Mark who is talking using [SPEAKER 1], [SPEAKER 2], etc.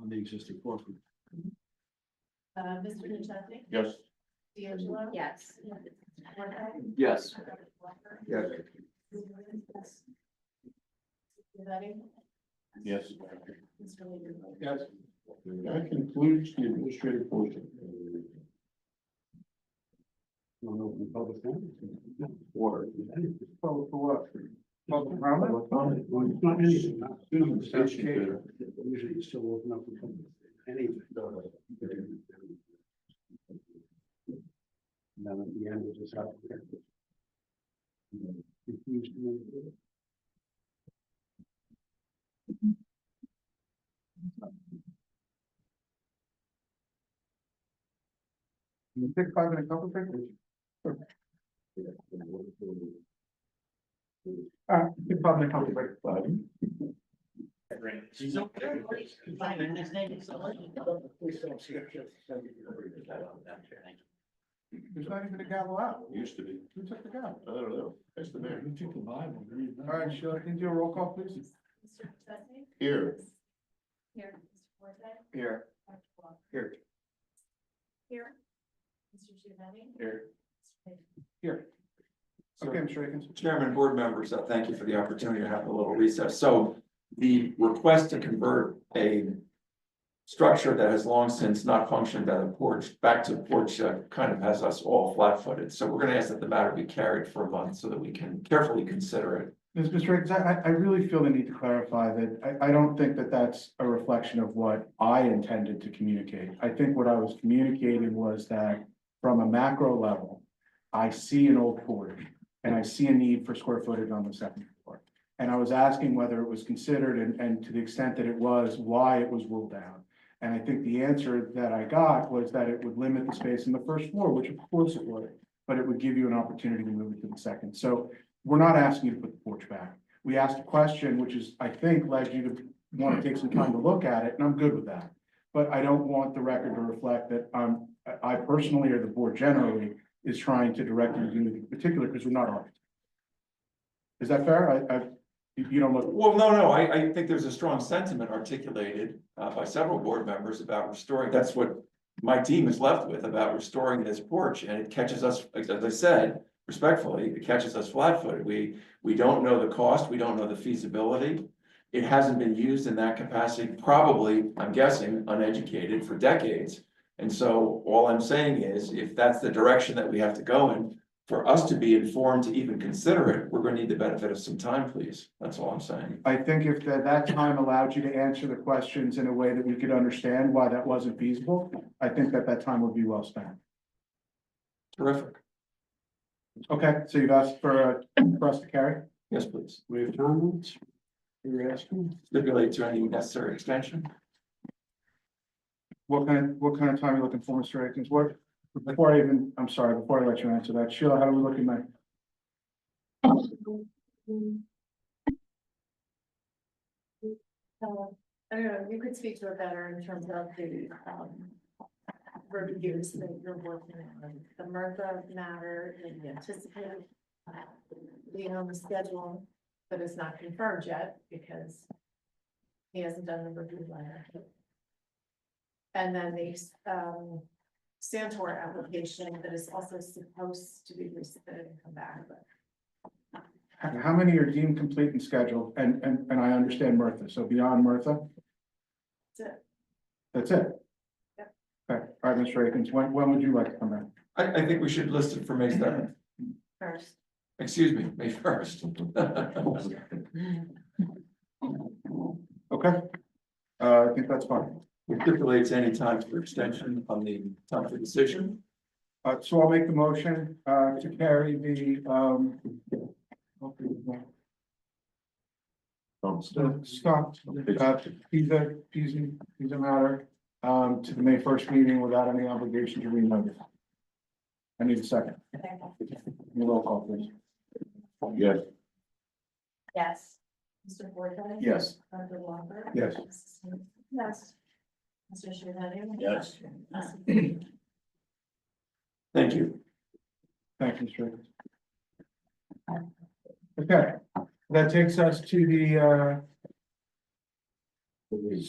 [SPEAKER 1] on the existing footprint.
[SPEAKER 2] Uh, Mr. Nuchesny?
[SPEAKER 3] Yes.
[SPEAKER 2] D'Angelo?
[SPEAKER 4] Yes.
[SPEAKER 2] Moore?
[SPEAKER 5] Yes.
[SPEAKER 1] Yes.
[SPEAKER 2] Letting?
[SPEAKER 3] Yes.
[SPEAKER 2] Mr. Lieberman?
[SPEAKER 3] Yes. That concludes the administrative portion.
[SPEAKER 1] Want to open the public hearing? Or. Public for what? Public comment? Well, it's not anything, not doing the same shape. Usually you still open up the public, anything. And Then at the end, we just have. to- If you- You pick five and a couple things? Uh, pick five and a couple things. There's not even a gavel out.
[SPEAKER 3] Used to be.
[SPEAKER 1] Who took the gavel?
[SPEAKER 3] I don't know. That's the man. Who took the Bible?
[SPEAKER 1] All right, Sheila, can you do a roll call, please?
[SPEAKER 2] Mr. Nuchesny?
[SPEAKER 3] Here.
[SPEAKER 2] Here. Mr. Forte?
[SPEAKER 1] Here.
[SPEAKER 2] Dr. Walker?
[SPEAKER 1] Here.
[SPEAKER 2] Here. Mr. Giovanni?
[SPEAKER 3] Here.
[SPEAKER 1] Here. Okay, Mr. Akins.
[SPEAKER 5] Chairman, board members, uh, thank you for the opportunity to have a little recess. So the request to convert a structure that has long since not functioned as a porch, back to porch, uh, kind of has us all flat-footed. So we're gonna ask that the matter be carried for a month so that we can carefully consider it.
[SPEAKER 6] Ms. Mr. Akins, I, I really feel the need to clarify that I, I don't think that that's a reflection of what I intended to communicate. I think what I was communicating was that from a macro level, I see an old porch and I see a need for square footage on the second floor. And I was asking whether it was considered and, and to the extent that it was, why it was ruled down. And I think the answer that I got was that it would limit the space in the first floor, which of course it would, but it would give you an opportunity to move it to the second. So we're not asking you to put the porch back. We asked a question, which is, I think, led you to want to take some time to look at it, and I'm good with that. But I don't want the record to reflect that I'm, I- I personally or the board generally is trying to direct you to do anything particular because we're not architects. Is that fair? I, I, you you don't look,
[SPEAKER 5] Well, no, no, I, I think there's a strong sentiment articulated, uh, by several board members about restoring, that's what my team is left with about restoring this porch, and it catches us, as I said, respectfully, it catches us flat-footed. We, we don't know the cost, we don't know the feasibility. It hasn't been used in that capacity, probably, I'm guessing, uneducated for decades. And so all I'm saying is, if that's the direction that we have to go in, for us to be informed to even consider it, we're gonna need the benefit of some time, please. That's all I'm saying.
[SPEAKER 6] I think if that, that time allowed you to answer the questions in a way that we could understand why that wasn't feasible, I think that that time would be well spent.
[SPEAKER 5] Terrific.
[SPEAKER 6] Okay, so you've asked for, uh, for us to carry?
[SPEAKER 5] Yes, please.
[SPEAKER 1] We have comments? You're asking?
[SPEAKER 5] Stipulate to any necessary extension.
[SPEAKER 6] What kind of, what kind of time are you looking for, Mr. Akins? What, before I even, I'm sorry, before I let you answer that, Sheila, how are we looking at?
[SPEAKER 2] Uh, I don't know, you could speak to it better in terms of the, um, reviews that you're working on, the MRFA matter, and the anticipated, uh, being on the schedule, but it's not confirmed yet because he hasn't done the review letter. And then the, um, Santor application that is also supposed to be resubmitted and come back, but
[SPEAKER 6] How, how many are deemed complete and scheduled? And, and, and I understand Martha, so beyond Martha,
[SPEAKER 2] that's it.
[SPEAKER 6] that's it?
[SPEAKER 2] Yep.
[SPEAKER 6] Okay, all right, Mr. Akins, when, when would you like to come in?
[SPEAKER 5] I, I think we should list it for May seventh,
[SPEAKER 2] First.
[SPEAKER 5] excuse me, May first.
[SPEAKER 6] Okay? Uh, I think that's fine.
[SPEAKER 5] We stipulate to any time for extension on the time for decision.
[SPEAKER 6] Uh, so I'll make the motion, uh, to carry the, um, so Scott, uh, Pisa, Pisa, Pisa matter, um, to the May first meeting without any obligation to renotice. I need a second. Your roll call, please.
[SPEAKER 3] Yes.
[SPEAKER 2] Yes. Mr. Forte?
[SPEAKER 6] Yes.
[SPEAKER 2] Dr. Walker?
[SPEAKER 6] Yes.
[SPEAKER 2] Yes. Mr. Shavani?
[SPEAKER 3] Yes.
[SPEAKER 5] Thank you.
[SPEAKER 6] Thank you, Mr. Akins. Okay, that takes us to the, uh,